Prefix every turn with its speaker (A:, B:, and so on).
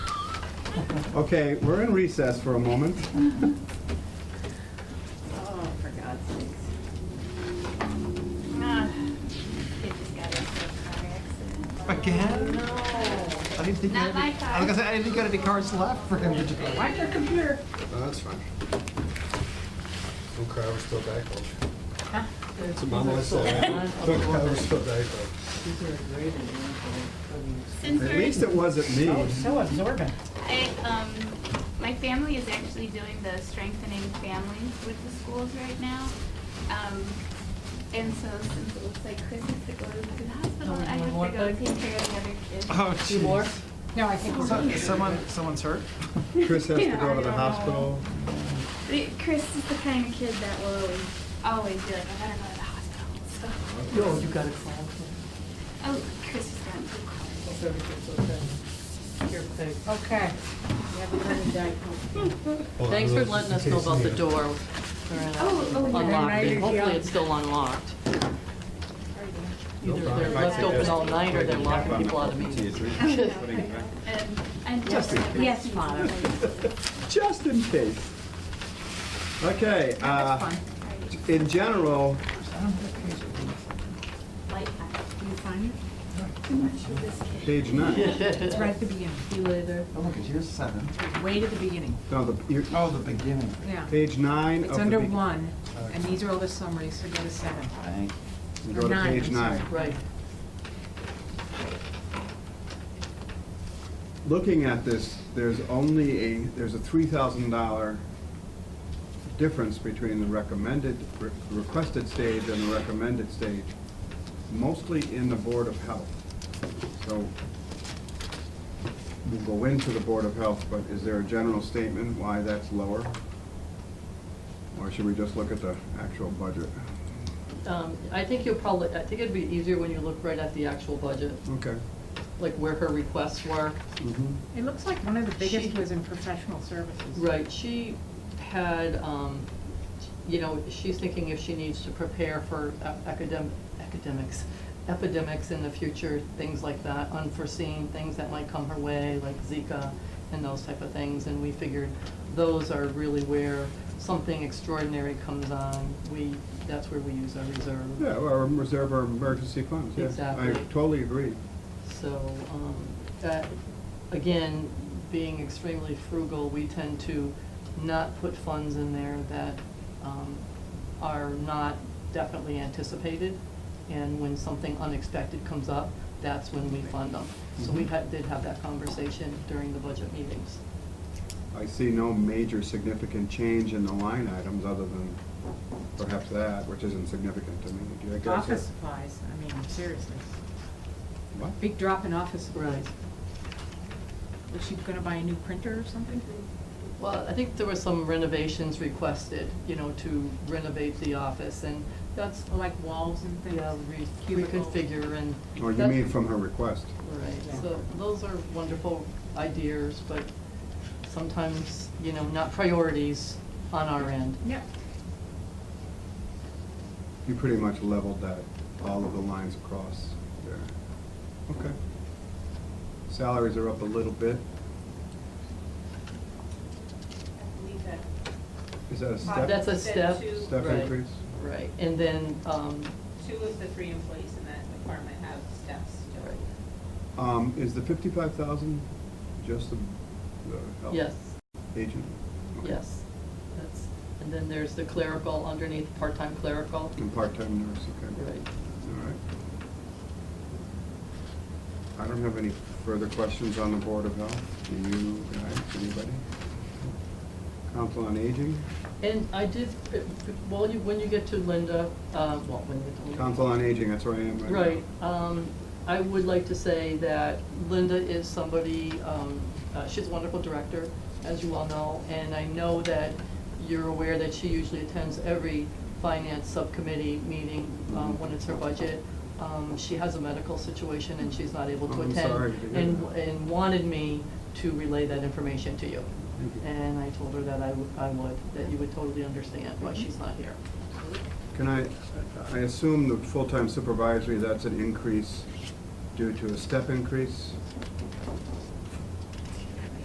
A: Okay, we're in recess for a moment.
B: Oh, for God's sakes. Ah, Kid just got into a car accident.
C: Again?
B: No.
C: I didn't think
B: Not
C: you had
B: my
C: any- I was gonna say, I didn't think you had any cards left for him to do.
B: Watch your computer.
A: That's fine.
D: Oh, Don't cry, we're still backhoe.
B: Huh?
D: It's a mama I said. Don't cry, we're still backhoe.
B: Since
A: At
B: we're-
A: least it wasn't me.
E: Oh, so absorbent.
B: I, um, my family is actually doing the strengthening families with the schools right now. Um, and so since it looks like Chris has to go to the hospital, I have to go take care of the other kids.
A: Uh-huh.
C: Oh, jeez.
E: No, I think we're
C: So-
E: good.
C: Someone, someone's hurt?
A: Chris has to
B: Yeah,
A: go
B: I
A: to the
B: know.
A: hospital.
B: The- Chris is the kind of kid that will always, always be like, I gotta go to the hospital, so.
A: Uh-huh.
E: No, you got a call.
B: Oh, Chris is gone too quick.
E: Okay.
F: Thanks for letting us know about the door.
B: Oh, oh, yeah.
F: Unlocked it. Hopefully it's still unlocked. Either they're left open all night or they're locking people out of meetings.
B: And, and.
A: Just in case.
B: Yes, Father.
A: Just in case. Okay, uh, in general,
B: Light pack.
G: You find it?
A: page nine.
F: Uh,
G: It's right at the beginning. You lay there.
C: Oh, look, here's seven.
G: Way to the beginning,
A: No, the, you
C: Oh, the beginning.
G: yeah.
A: page nine of the.
G: It's under
A: be-
G: one, and these are all the summaries, so go to seven.
A: you Go
G: or
A: to
G: nine,
A: page
G: I'm sorry.
A: nine.
F: Right.
A: Looking at this, there's only a, there's a three thousand dollar difference between the recommended, re- requested stage and the recommended stage, mostly in the Board of Health. So we'll go into the Board of Health, but is there a general statement why that's lower? Or should we just look at the actual budget?
F: Um, I think you'll probably, I think it'd be easier when you look right at the actual budget,
A: Okay.
F: like where her requests were.
A: Mhm.
G: It looks like one of the biggest
F: She-
G: was in professional services.
F: Right, she had, um, you know, she's thinking if she needs to prepare for academic, academics, epidemics in the future, things like that, unforeseen things that might come her way, like Zika and those type of things, and we figured those are really where something extraordinary comes on, we, that's where we use our reserve.
A: Yeah, or reserve our emergency funds, yes. I
F: Exactly.
A: totally agree.
F: So, um, that, again, being extremely frugal, we tend to not put funds in there that, um, are not definitely anticipated. And when something unexpected comes up, that's when we fund them. So we
A: Mhm.
F: had, did have that conversation during the budget meetings.
A: I see no major significant change in the line items other than perhaps that, which isn't significant to me. Do you guys have-
G: Office supplies, I mean, seriously.
A: What?
G: Big drop in office supplies. Was she gonna buy a new printer or something?
F: Well, I think there were some renovations requested, you know, to renovate the office, and that's,
G: Or Like walls and things?
F: yeah, re-
G: Cubicles.
F: reconfigure and.
A: Or Oh, you
F: that's-
A: mean from her request?
F: Right, so those are wonderful ideas, but sometimes, you know, not priorities on our end.
G: Yeah.
A: You pretty much leveled that, all of the lines across there. Okay. Salaries are up a little bit. Is that a step?
F: That's a step.
A: Step
F: right,
A: increase?
F: Right, and then, um,
H: Two of the three employees in that department have steps to it.
A: Um, is the fifty-five thousand just the, the health
F: yes,
A: agent? Okay.
F: yes, that's, and then there's the clerical underneath, part-time clerical.
A: And part-time nurse, okay.
F: Right,
A: All right. I don't have any further questions on the Board of Health. Do you guys, anybody? Council on Aging?
F: and I did, uh, well, you, when you get to Linda, uh, well, when you get to Linda.
A: Council on Aging, that's where I am right now.
F: Right, um, I would like to say that Linda is somebody, um, uh, she's a wonderful director, as you all know, and I know that you're aware that she usually attends every finance subcommittee meeting, um,
A: Mhm.
F: when it's her budget. Um, she has a medical situation and she's not able to
A: Oh, I'm
F: attend.
A: sorry to hear
F: And,
A: that.
F: and wanted me to relay that information to you.
A: Thank you.
F: And I told her that I would, I would, that you would totally understand why
A: Mm-hmm.
F: she's not here.
A: Can I, I assume the full-time supervisory, that's an increase due to a step increase?